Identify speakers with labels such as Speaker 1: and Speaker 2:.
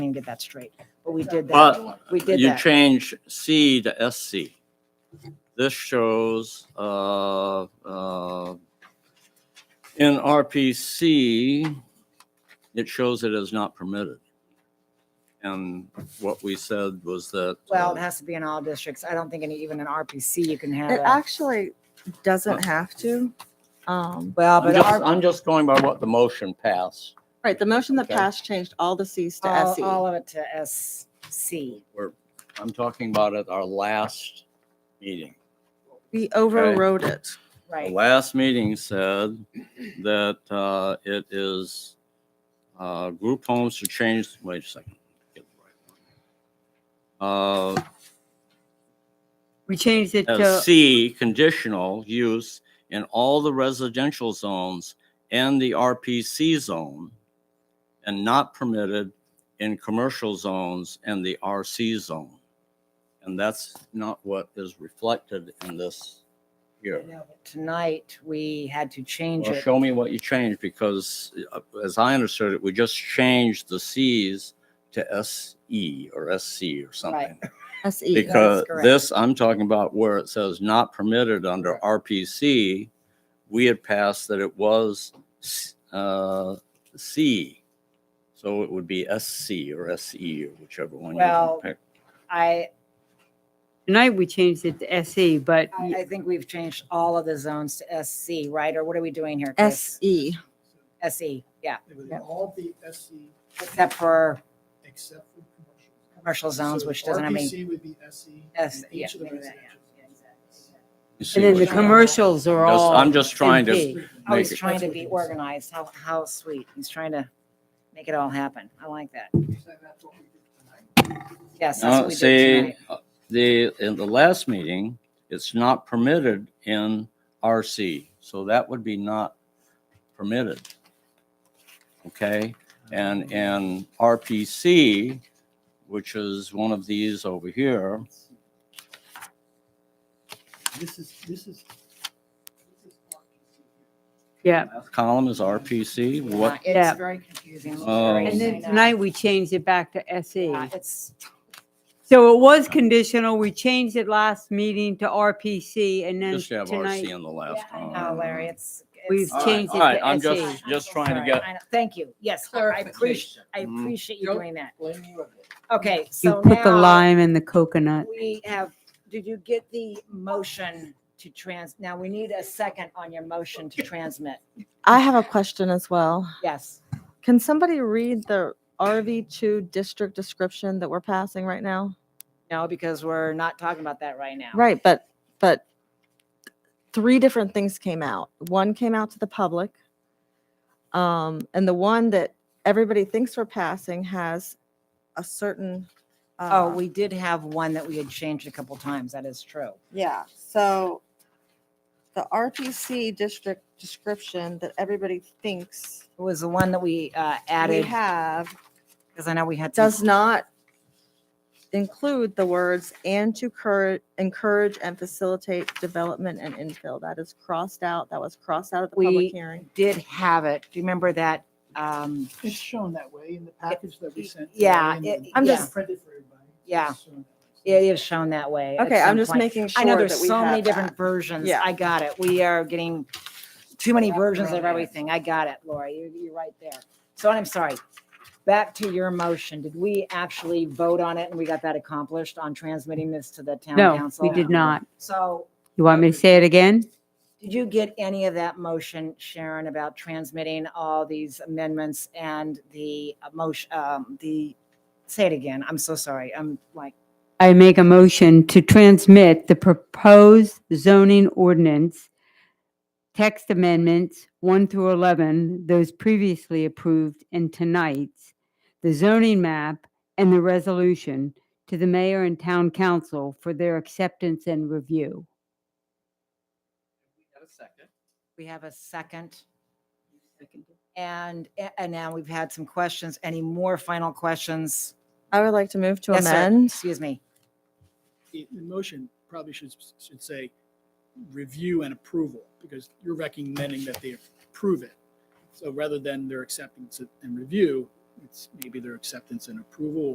Speaker 1: and get that straight, but we did that.
Speaker 2: But
Speaker 1: We did
Speaker 2: you
Speaker 1: that.
Speaker 2: change C to SC. This shows, uh, uh, in RPC, it shows it is not permitted. And what we said was that.
Speaker 1: Well,
Speaker 2: uh,
Speaker 1: it has to be in all districts. I don't think any, even in RPC, you can have
Speaker 3: It
Speaker 1: that.
Speaker 3: actually
Speaker 2: Oh.
Speaker 3: doesn't have to. Um,
Speaker 1: Well,
Speaker 2: I'm
Speaker 1: but
Speaker 2: just,
Speaker 1: our-
Speaker 2: I'm just going by what the motion passed.
Speaker 3: right, the motion that
Speaker 2: Okay.
Speaker 3: passed changed all the Cs to E.
Speaker 1: all,
Speaker 3: SE.
Speaker 1: all of it to SC.
Speaker 2: We're, I'm talking about at our last meeting.
Speaker 3: We overrode it.
Speaker 2: The
Speaker 1: Right,
Speaker 2: last meeting said that uh, it is uh, group homes to change, wait a second. Get the right one.
Speaker 4: We changed it
Speaker 2: Uh, uh,
Speaker 4: to,
Speaker 2: C, conditional use in all the residential zones and the RPC zone and not permitted in commercial zones and the RC zone. And that's not what is reflected in this here.
Speaker 1: No, but tonight, we had to change
Speaker 2: Well,
Speaker 1: it.
Speaker 2: show me what you changed, because uh, as I understood it, we just changed the Cs to SE or SC or something.
Speaker 4: E,
Speaker 3: SE.
Speaker 2: Because
Speaker 1: correct.
Speaker 2: this, I'm talking about where it says not permitted under RPC, we had passed that it was s- uh, C. So it would be SC or SE or whichever one you
Speaker 1: Well,
Speaker 2: pick.
Speaker 1: I,
Speaker 4: tonight we changed it to SE, but
Speaker 1: I I think we've changed all of the zones to SC, right? Or what are we doing here? Chris?
Speaker 3: SE.
Speaker 1: SE, yeah,
Speaker 5: It was all the SE
Speaker 1: except for
Speaker 5: except for commercial.
Speaker 1: commercial zones,
Speaker 5: So
Speaker 1: which doesn't have any.
Speaker 5: RPC would be SE.
Speaker 1: S- E.
Speaker 5: and
Speaker 1: yeah,
Speaker 5: each of the
Speaker 1: maybe that,
Speaker 5: residential
Speaker 1: yeah, exactly.
Speaker 2: You see
Speaker 4: and then
Speaker 2: what
Speaker 4: the
Speaker 2: you-
Speaker 4: commercials are
Speaker 2: Just-
Speaker 4: all.
Speaker 2: I'm just trying to
Speaker 4: MP.
Speaker 1: Oh,
Speaker 2: make
Speaker 1: he's
Speaker 2: it. E.
Speaker 1: trying to be organized. How, how sweet. He's trying to make it all happen. I like that.
Speaker 5: zones. So that's what we did tonight.
Speaker 1: Yes, that's what
Speaker 2: No,
Speaker 1: we did
Speaker 2: Uh, see,
Speaker 1: tonight.
Speaker 2: uh, the, in the last meeting, it's not permitted in RC, so that would be not permitted. Okay, and in RPC, which is one of these over here,
Speaker 5: This is, this is. this is RPC.
Speaker 4: Yeah,
Speaker 2: last column is RPC,
Speaker 1: Uh,
Speaker 2: what,
Speaker 4: Yeah.
Speaker 1: It's very confusing. It's
Speaker 2: Oh.
Speaker 1: very-
Speaker 4: and
Speaker 1: I
Speaker 4: then
Speaker 1: know.
Speaker 4: tonight we changed it back to SE.
Speaker 1: Uh, It's,
Speaker 4: So it was conditional. We changed it last meeting to RPC and then
Speaker 2: just have RC
Speaker 4: tonight.
Speaker 2: in the
Speaker 1: yeah,
Speaker 2: last
Speaker 1: I
Speaker 2: column.
Speaker 1: know, Larry, it's.
Speaker 4: We've
Speaker 1: it's-
Speaker 2: All right,
Speaker 4: changed
Speaker 2: all
Speaker 4: it
Speaker 2: right,
Speaker 4: to E.
Speaker 2: I'm
Speaker 4: SE.
Speaker 2: just, just trying to
Speaker 1: Sorry,
Speaker 2: get,
Speaker 1: I know. Thank you. Yes, I appreciate, I
Speaker 2: Mhm.
Speaker 1: appreciate you
Speaker 5: Yep.
Speaker 1: doing that.
Speaker 5: Blame you again.
Speaker 1: Okay,
Speaker 4: You
Speaker 1: so
Speaker 4: put the
Speaker 1: now
Speaker 4: lime in the coconut.
Speaker 1: we have, did you get the motion to trans, now we need a second on your motion to transmit.
Speaker 3: I have a question as well.
Speaker 1: Yes.
Speaker 3: Can somebody read the RV2 district description that we're passing right now?
Speaker 1: No, because we're not talking about that right now.
Speaker 3: Right, but, but three different things came out. One came out to the public. Um, and the one that everybody thinks we're passing has a certain.
Speaker 1: Oh,
Speaker 3: uh,
Speaker 1: we did have one that we had changed a couple times. That is true.
Speaker 3: Yeah, so the RPC district description that everybody thinks
Speaker 1: It was the one that we uh,
Speaker 3: we
Speaker 1: added, Mm-hmm.
Speaker 3: have
Speaker 1: because I know we had. some-
Speaker 3: does not include the words and to cur- encourage and facilitate development and infill. That is crossed out. That was crossed out at the
Speaker 1: We-
Speaker 3: public hearing.
Speaker 1: Did have it. Do you remember that? um,
Speaker 5: It's shown that way in the package that we sent.
Speaker 1: Yeah,
Speaker 5: today and
Speaker 1: it-
Speaker 3: I'm
Speaker 5: then
Speaker 3: just-
Speaker 5: Printed for everybody. It's
Speaker 1: Yeah.
Speaker 5: shown that way.
Speaker 1: It is shown that way. at
Speaker 3: Okay, I'm
Speaker 1: some
Speaker 3: just
Speaker 1: point.
Speaker 3: making sure
Speaker 1: I know
Speaker 3: that
Speaker 1: there's
Speaker 3: we
Speaker 1: so many
Speaker 3: have
Speaker 1: different
Speaker 3: that.
Speaker 1: versions.
Speaker 3: Yeah.
Speaker 1: I got it. We are getting too many versions of everything. I got it, Laura. You're, you're right there. So I'm sorry. Back to your motion. Did we actually vote on it and we got that accomplished on transmitting this to the town
Speaker 4: No,
Speaker 1: council?
Speaker 4: we did not.
Speaker 1: So
Speaker 4: You want me to say it again?
Speaker 1: Did you get any of that motion, Sharon, about transmitting all these amendments and the motion, um, the, say it again, I'm so sorry, I'm like,
Speaker 4: I make a motion to transmit the proposed zoning ordinance, text amendments 1 through 11, those previously approved, and tonight's, the zoning map and the resolution to the mayor and town council for their acceptance and review.
Speaker 1: we have a second? And, and now we've had some questions, any more final questions?
Speaker 3: I would like to move to
Speaker 1: Yes, sir.
Speaker 3: amend.
Speaker 1: Excuse me,
Speaker 5: The the motion probably should, should say review and approval because you're recommending that they approve it. So rather than they're acceptance and review, it's maybe their acceptance and approval